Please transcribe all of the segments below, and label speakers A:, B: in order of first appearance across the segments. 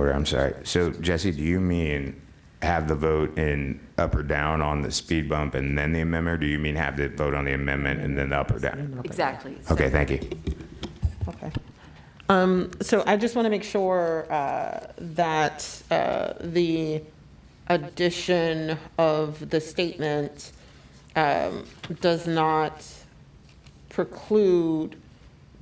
A: Sure, I'm sorry. So Jesse, do you mean have the vote in up or down on the speed bump and then the amendment? Or do you mean have the vote on the amendment and then the up or down?
B: Exactly. So-
A: Okay, thank you.
C: Okay. Um, So I just want to make sure uh, that uh, the addition of the statement um, does not preclude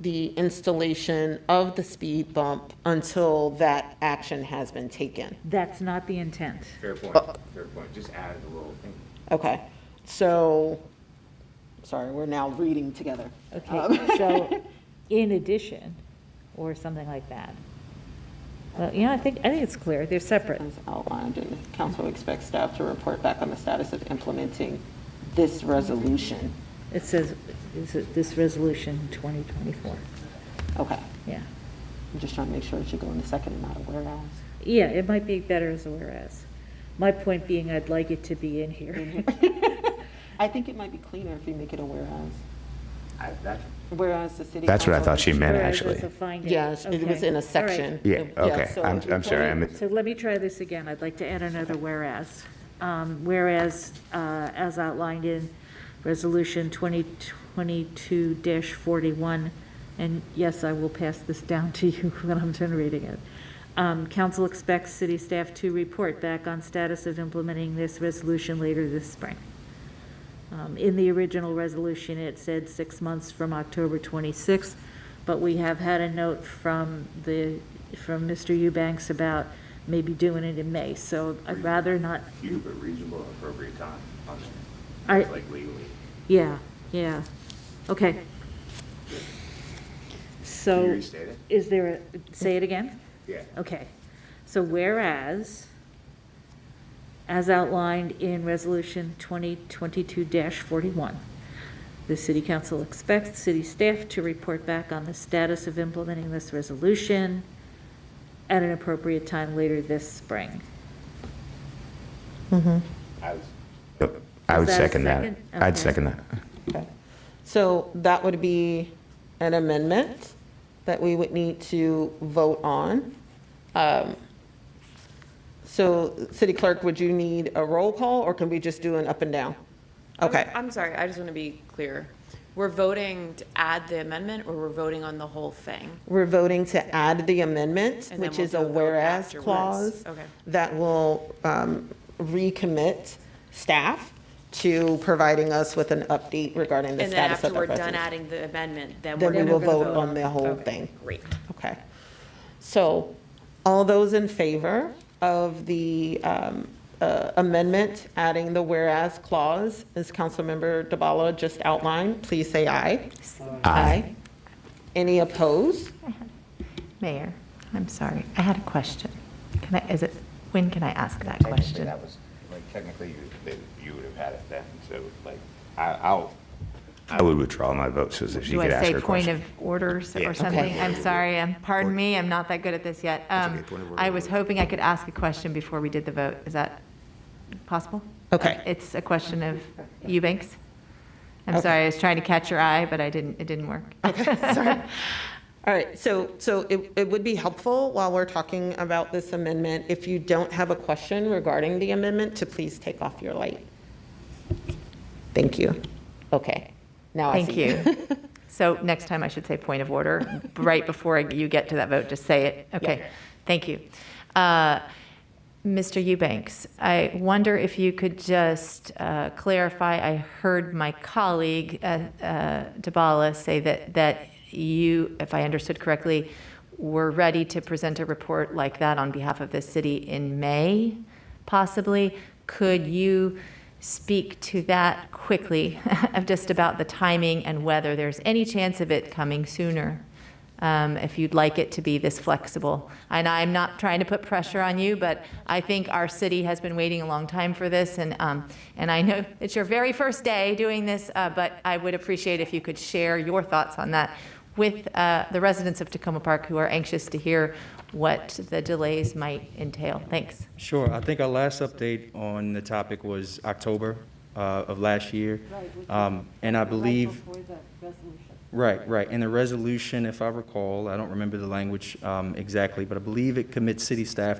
C: the installation of the speed bump until that action has been taken.
D: That's not the intent.
A: Fair point, fair point. Just add a little thing.
C: Okay, so, sorry, we're now reading together. Um,
D: Okay, so in addition, or something like that. Well, you know, I think, I think it's clear, they're separate.
C: As outlined, and council expects staff to report back on the status of implementing this resolution.
D: It says, is it this resolution 2024?
C: Okay,
D: Yeah.
C: I'm just trying to make sure it should go in the second and not a whereas.
D: Yeah, it might be better as a whereas. My point being, I'd like it to be in here.
C: I think it might be cleaner if you make it a whereas.
A: that's-
C: Whereas the city.
A: That's what I
C: council-
A: thought she meant,
D: Whereas
A: actually.
D: as a finding.
C: Yes, it was
D: Okay.
C: in
D: All
C: a
D: right.
C: section.
A: Yeah, okay,
C: so
A: I'm,
C: if
A: I'm
C: we
A: sorry, I
C: put it-
A: mis-
D: So let me try this again. I'd like to add another whereas. Um, Whereas, uh, as outlined in Resolution 2022-41, and yes, I will pass this down to you when I'm done reading it. Um, Council expects city staff to report back on status of implementing this resolution later this spring. Um, In the original resolution, it said six months from October 26th, but we have had a note from the, from Mr. Eubanks about maybe doing it in May, so I'd rather not,
E: few, but reasonable and appropriate time on it,
D: I,
E: like legally.
D: yeah, yeah, okay.
E: Can you
D: So,
E: restate it?
D: is there, a say it again?
E: Yeah.
D: Okay, so whereas, as outlined in Resolution 2022-41, the city council expects city staff to report back on the status of implementing this resolution at an appropriate time later this spring.
E: I was,
A: Oh, I would
D: Is that a
A: second that.
D: second?
A: I'd
D: Okay.
A: second that.
C: Okay. So that would be an amendment that we would need to vote on. Um, So, City Clerk, would you need a roll call, or can we just do an up and down?
B: I'm-
C: Okay,
B: I'm sorry, I just want to be clear. We're voting to add the amendment or we're voting on the whole thing?
C: we're voting to add the amendment,
B: And then
C: which
B: we'll
C: is a
B: do a vote
C: whereas
B: afterwards.
C: clause
B: Okay.
C: that will um, recommit staff to providing us with an update regarding the
B: And then
C: status
B: after
C: of the
B: we're done
C: resolution.
B: adding the amendment, then we're
C: Then we
B: going to.
C: will vote on the whole thing.
B: Great.
C: Okay. So, all those in favor of the um, uh, amendment, adding the whereas clause, as Councilmember DeBala just outlined, please say aye. Aye. Any opposed?
F: Mayor, I'm sorry, I had a question. Can I, is it, when can I ask that
E: technically,
F: question?
E: that was, like, technically, you, that you would have had it then, so, like, I, I'll,
A: I would withdraw my vote so that she
F: Do
A: could
F: I
A: ask her
F: say point
A: question.
F: of orders
E: Yeah.
F: or something? I'm sorry, I'm, pardon me, I'm not that good at this yet. Um,
E: okay, point of order.
F: I was hoping I could ask a question before we did the vote. Is that possible? Uh,
C: Okay.
F: It's a question of Eubanks. I'm
C: Okay.
F: sorry, I was trying to catch your eye, but I didn't, it didn't work.
C: All right, so, so it, it would be helpful while we're talking about this amendment, if you don't have a question regarding the amendment, to please take off your light. Thank you. Okay, now I
F: Thank
C: see.
F: you. So next time I should say point of order, right before you get to that vote, just say it. Okay, thank you. Uh, Mr. Eubanks, I wonder if you could just uh, clarify, I heard my colleague, uh, uh, Dabala, say that, that you, if I understood correctly, were ready to present a report like that on behalf of the city in May, possibly. Could you speak to that quickly, of just about the timing and whether there's any chance of it coming sooner? um, if you'd like it to be this flexible. And I'm not trying to put pressure on you, but I think our city has been waiting a long time for this, and, um, and I know it's your very first day doing this, uh, but I would appreciate if you could share your thoughts on that with uh, the residents of Tacoma Park who are anxious to hear what the delays might entail. Thanks.
G: Sure, I think our last update on the topic was October uh, of last year. Um, And I believe. Right, right, and the resolution, if I recall, I don't remember the language um, exactly, but I believe it commits city staff